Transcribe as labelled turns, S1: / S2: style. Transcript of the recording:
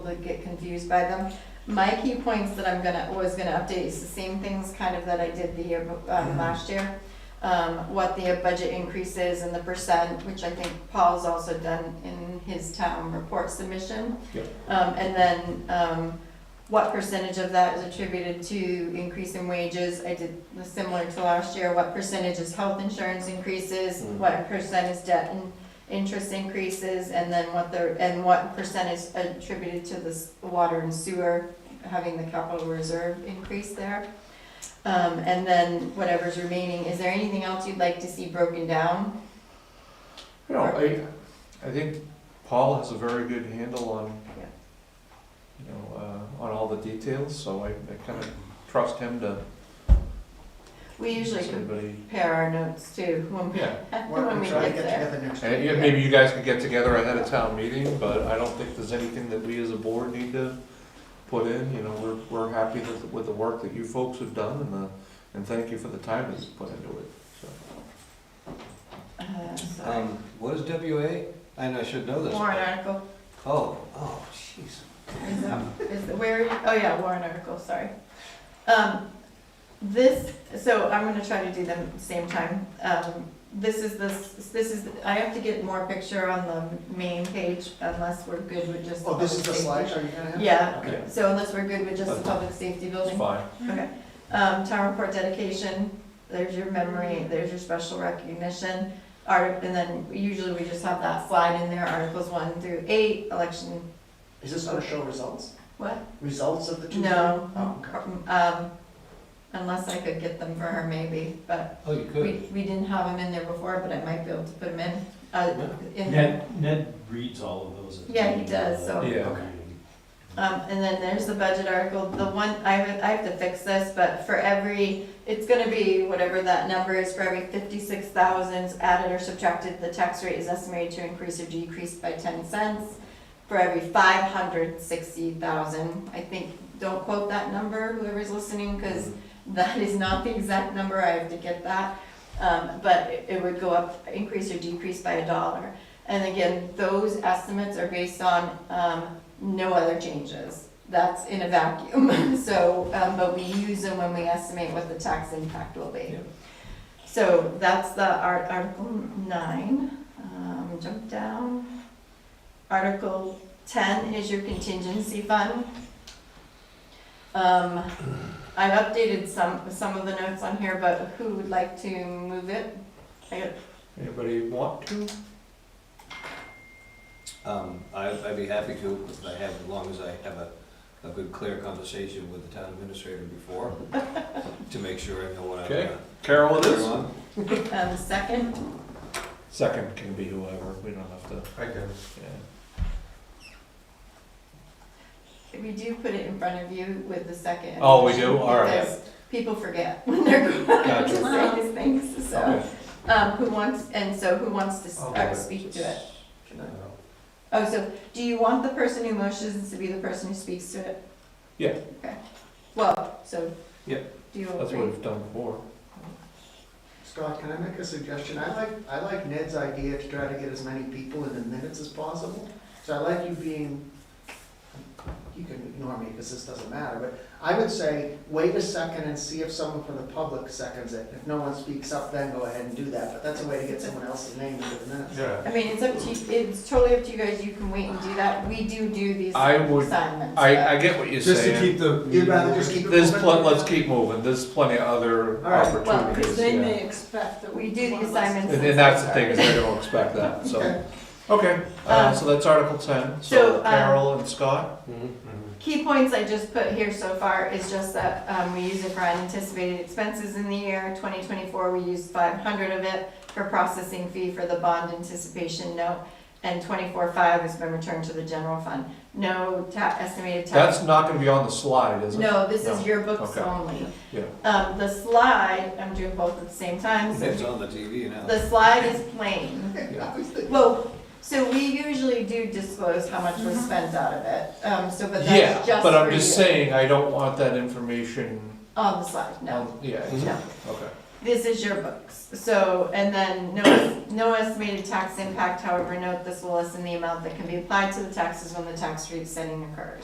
S1: that get confused by them. My key points that I'm gonna, was gonna update is the same things kind of that I did the year, bef- um, last year. Um, what the budget increase is and the percent, which I think Paul's also done in his town report submission.
S2: Yep.
S1: Um, and then, um, what percentage of that is attributed to increase in wages? I did the similar to last year, what percentage is health insurance increases,
S2: Mhm.
S1: what percent is debt and interest increases, and then what the, and what percent is attributed to this water and sewer, having the capital reserve increase there. Um, and then whatever's remaining, is there anything else you'd like to see broken down?
S2: You know, I, I think Paul has a very good handle on,
S1: Yeah.
S2: you know, uh, on all the details, so I, I kind of trust him to.
S1: We usually
S2: Anybody,
S1: compare our notes too, when we,
S2: yeah,
S3: Why don't
S1: when we
S3: we try to
S1: get
S3: get
S1: there.
S3: together next
S2: and
S3: week?
S2: yeah, maybe you guys could get together ahead of town meeting, but I don't think there's anything that we as a board need to put in, you know, we're, we're happy with, with the work that you folks have done and the, and thank you for the time that's put into it, so.
S1: Uh, so,
S4: Um, what is WA? I know, I should know this.
S1: Warrant article,
S4: Oh, oh, jeez.
S1: is that, is, that- where, oh yeah, warrant article, sorry. Um, this, so I'm gonna try to do them at the same time. Um, this is the, s- this is, I have to get more picture on the main page unless we're good with just.
S3: Oh, this is the
S1: public
S3: slideshow
S1: safety.
S3: you're gonna have?
S1: Yeah,
S2: Okay.
S1: so unless we're good with just the public safety
S2: It's
S1: building.
S2: fine,
S1: Okay, um, town report dedication, there's your memory, there's your special recognition. Art, and then usually we just have that slide in there, articles one through eight, election,
S3: Is this gonna show results?
S1: what?
S3: Results of the two?
S1: No.
S3: Oh, okay.
S1: Um, unless I could get them for her maybe, but
S4: Oh, you
S1: we,
S4: could.
S1: we didn't have them in there before, but I might be able to put them in, uh, in.
S5: Ned, Ned reads all of those. at the
S1: Yeah, he
S5: beginning of the
S1: does, so-
S2: Yeah.
S5: meeting.
S1: Um, and then there's the budget article, the one, I have, I have to fix this, but for every, it's gonna be whatever that number is, for every fifty-six thousands added or subtracted, the tax rate is estimated to increase or decrease by ten cents. For every five hundred sixty thousand, I think, don't quote that number, whoever's listening, cause that is not the exact number, I have to get that. Um, but it- it would go up, increase or decrease by a dollar. And again, those estimates are based on, um, no other changes. That's in a vacuum, so, um, but we use them when we estimate what the tax impact will be.
S2: Yeah.
S1: So that's the art, Article nine, um, jump down. Article ten is your contingency fund. Um, I've updated some, some of the notes on here, but who would like to move it? I-
S2: anybody want to?
S4: Um, I, I'd be happy to, if I have, as long as I have a, a good, clear conversation with the town administrator before, to make sure I know what I'm
S2: Okay.
S4: gonna.
S2: Carol it
S4: Carry
S2: is?
S4: on.
S1: Um, second,
S2: Second can be whoever, we don't have to,
S4: I can.
S2: yeah.
S1: we do put it in front of you with the second.
S2: Oh, we do? All right.
S1: because People forget when they're going
S2: Gotcha.
S1: to say these things, so,
S2: Okay.
S1: um, who wants, and so who wants to s- uh,
S2: Okay.
S1: speak to it?
S4: Can I?
S1: Oh, so, do you want the person who motions to be the person who speaks to it?
S2: Yeah.
S1: Okay, well, so.
S2: Yep.
S1: Do you
S2: That's what
S1: agree?
S2: we've done before.
S3: Scott, can I make a suggestion? I like, I like Ned's idea to try to get as many people in the minutes as possible. So I like you being, you can ignore me because this doesn't matter, but I would say, wait a second and see if someone from the public seconds it. If no one speaks up, then go ahead and do that, but that's a way to get someone else's name into the minutes.
S2: Yeah.
S1: I mean, it's up to you, it's totally up to you guys, you can wait and do that, we do do these
S2: I would-
S1: assignments. but-
S2: I, I get what you're
S4: Just to
S2: saying.
S4: keep the.
S3: You'd rather just keep it
S2: There's
S3: moving?
S2: pl- let's keep moving, there's plenty of other
S3: All right.
S1: Well, 'cause
S2: opportunities,
S6: They
S2: yeah.
S6: may expect that
S1: We
S6: we
S1: do the
S6: one less-
S1: assignments.
S2: And, and that's the thing, is they don't expect that, so.
S3: Okay.
S2: Okay, uh,
S1: Um,
S2: so that's Article ten,
S1: so,
S2: so
S1: um,
S2: Carol and Scott?
S1: Key points I just put here so far is just that, um, we use it for unanticipated expenses in the year, twenty twenty-four, we used five hundred of it for processing fee for the bond anticipation note, and twenty-four five has been returned to the general fund. No ta- estimated tax.
S2: That's not gonna be on the slide, is it?
S1: No, this
S2: No.
S1: is your books
S2: Okay.
S1: only.
S2: Yeah.
S1: Um, the slide, I'm doing both at the same time, so
S4: It's on the TV now.
S1: the slide is plain.
S3: I was thinking-
S1: Well, so we usually do disclose how much was spent out of it, um, so, but
S2: Yeah,
S1: that's just
S2: but I'm
S1: for
S2: just
S1: you.
S2: saying, I don't want that information
S1: On the slide, no.
S2: on, yeah,
S4: Mhm.
S1: No.
S2: okay.
S1: this is your books. So, and then no, no estimated tax impact, however, note this will lessen the amount that can be applied to the taxes when the tax rate setting occurs.